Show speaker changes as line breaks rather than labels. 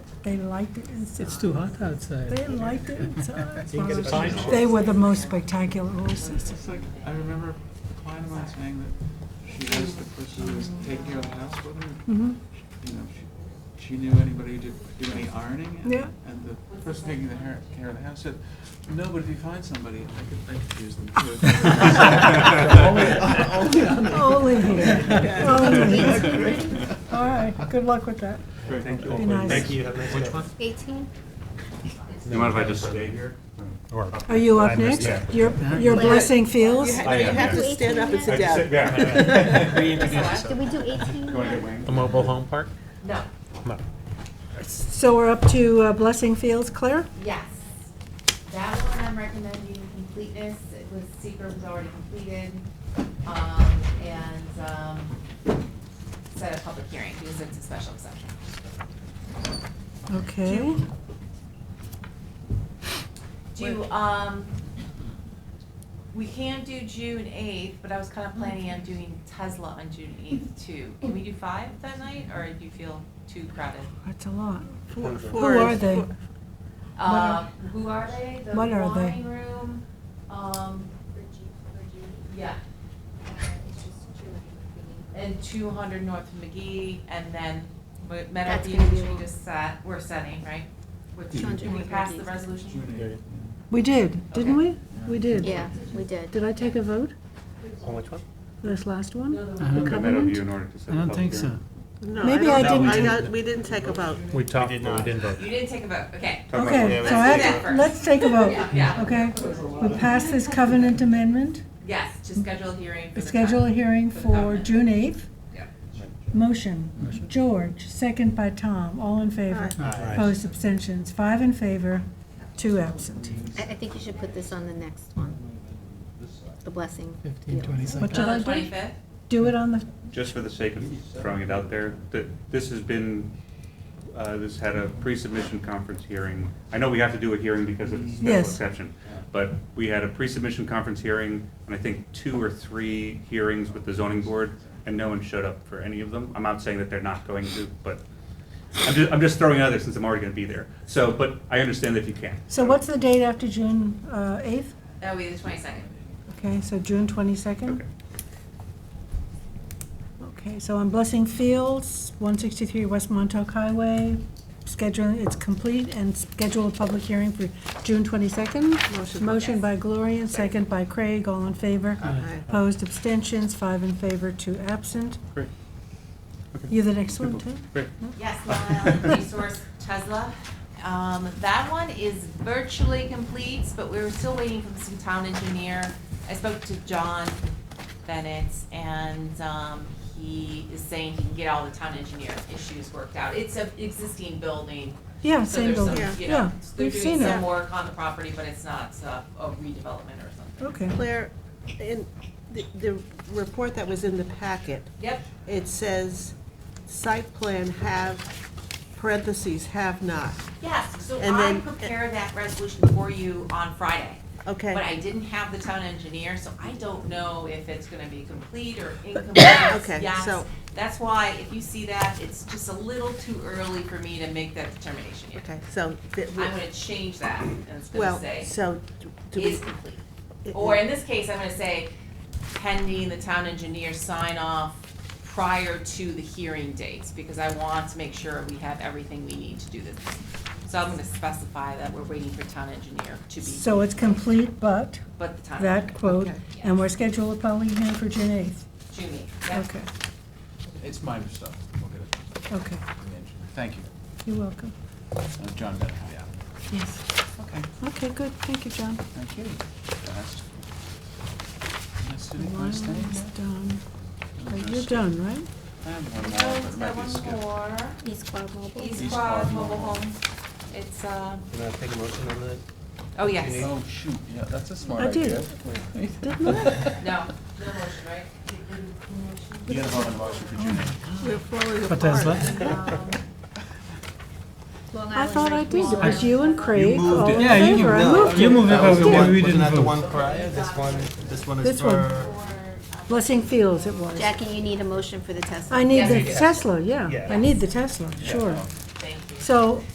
They liked it inside.
It's too hot outside.
They liked it inside.
You can get a time shift.
They were the most spectacular horses.
It's like, I remember a client of mine saying that she was the person who was taking care of the house with her.
Mhm.
You know, she, she knew anybody who did, do any ironing. and-
Yeah.
And the person taking the hair, care of the house said, no, but if you find somebody, I could, I could use them too.
Only here, only here.
Great.
All right, good luck with that.
Great.
Be nice.
you. Have a nice day.
18?
You mind if I just stay here?
Or-
Are you up next?
Yeah.
You're, you're blessing
You
Fields?
ha- no, you
am,
have to
yes.
stand up and sit
I
down.
just- yeah.
Did we do 18?
You wanna get wings?
The mobile home park?
No,
No.
So we're up to uh, blessing Fields, Claire?
yes. That one I'm recommending completeness, it was, secret was already completed, um, and, um, set a public hearing, because it's a special exception.
Okay.
Do, um, we can do June 8th, but I was kind of planning on doing Tesla on June 8th too. Can we do five that night, or do you feel too crowded?
That's a lot.
Four-
Who
four
are
is-
they?
four-
Uh, who are they? The
What are they?
wine room. Um, yeah, and 200 North McGee, and then Ma- Meadow
That's
View,
gonna
which
be
we
all.
just set. We're setting right. Which
Mhm.
did we pass the resolution?
We did, didn't we?
Okay.
We did.
Yeah, we did.
Did I take a vote?
On which one?
This last one?
No,
I
no,
don't-
The
Got that up
covenant?
you in order to set
I
the
don't
public
think so.
hearing?
No,
Maybe I
don't-
didn't-
not- We didn't take a vote.
We talked, but we didn't vote.
You didn't take a vote. Okay.
Talk about-
Okay,
Yeah,
so
let's do
I-
that first.
let's take a vote,
Yeah, yeah.
okay? We pass this covenant amendment,
Yes,
Mm-hmm.
to schedule a hearing for the.
schedule a
time.
hearing for June 8th.
Yeah.
Motion, George, second by Tom, all in favor.
Aye.
Opposed, abstentions, five in favor, two absent.
I, I think you should put this on the next one. The blessing.
Fifteen, twenty seconds.
What did I
On the
do?
25th?
Do it on the,
Just for the sake of throwing it out there, th- this has been, uh, this had a pre-submission conference hearing. I know we have to do a hearing because it's
Yes.
a special exception. But we had a pre-submission conference hearing, and I think two or three hearings with the zoning board, and no one showed up for any of them. I'm not saying that they're not going to, but I'm just, I'm just throwing it out there since I'm already gonna be there. So, but I understand if you can.
so what's the date after June uh, 8th?
That would be the 22nd.
Okay, so June 22nd?
Okay.
Okay, so I'm Blessing Fields, 163 West Montauk Highway, schedule, it's complete, and schedule a public hearing for June 22nd.
Motion.
Motion by Gloria, and second by Craig, all in favor.
Aye.
Opposed, abstentions, five in favor, two absent.
Great.
You're the next one, too?
Great.
Yes, Long Island Resource Tesla. Um, that one is virtually complete, but we were still waiting for some town engineer. I spoke to John Bennett and, um, he is saying he can get all the town engineer issues worked out. It's a existing building.
Yeah,
so
same
there's some,
building,
you know,
yeah,
They're
we've
doing
seen
some
it.
work on the property, but it's not uh, a redevelopment or something.
Okay,
Claire, in the, the report that was in the packet,
Yep,
it says, site plan have, parentheses, have not.
yes, so
And
I
then- eh,
prepared that resolution for you on Friday.
Okay.
But I didn't have the town engineer, so I don't know if it's gonna be complete or incomplete, yes.
so-
That's why, if you see that, it's just a little too early for me to make that determination yet.
Okay, so, that
I'm
we-
gonna change that, and it's gonna
well,
say,
so, do- do
is
we,
complete.
it-
Or in this case, I'm gonna say pending the town engineer sign off prior to the hearing dates, because I want to make sure we have everything we need to do this. So I'm gonna specify that we're waiting for town engineer to be,
so it's complete, but
but the time.
that quote,
Okay.
and we're scheduled a public hearing for June 8th.
Julie, yeah.
Okay,
It's minor stuff. We'll get it.
okay,
Thank you.
you're welcome.
Uh, John Bennett, yeah.
Yes.
Okay,
Okay, good, thank you, John.
thank you. Fast. Nice to meet you. Nice to meet
Mine's
you.
done. Oh, You're done, right?
I have Oh, one more, but it
Let's go
might be
one
skipped.
more.
East Quad Mobile.
East
East
Quad
Quad
Mobile
Mobile.
Home. It's, uh,
Can I take a motion on that?
oh, yes.
Oh, shoot, yeah, that's a smart
I did.
idea.
Didn't I?
No, no motion, right?
You gotta vote on the motion for June eighth.
we're falling
For
apart.
Tesla?
Um,
Long
I
Island
thought I
Re-
did. It
Long
was
Island.
you and Craig,
moved
all
it.
in
Yeah, you
favor. I
moved it.
moved
You
it.
moved it,
That was
but
the
we-
one-
we didn't
Wasn't that the
vote.
one prior? This one, this one
This
is
one.
for.
Blessing Fields it was.
Jackie, you need a motion for the Tesla.
I need
Yes,
the
I do.
Tesla, yeah. I
Yeah.
need the Tesla, sure.
Thank you.
So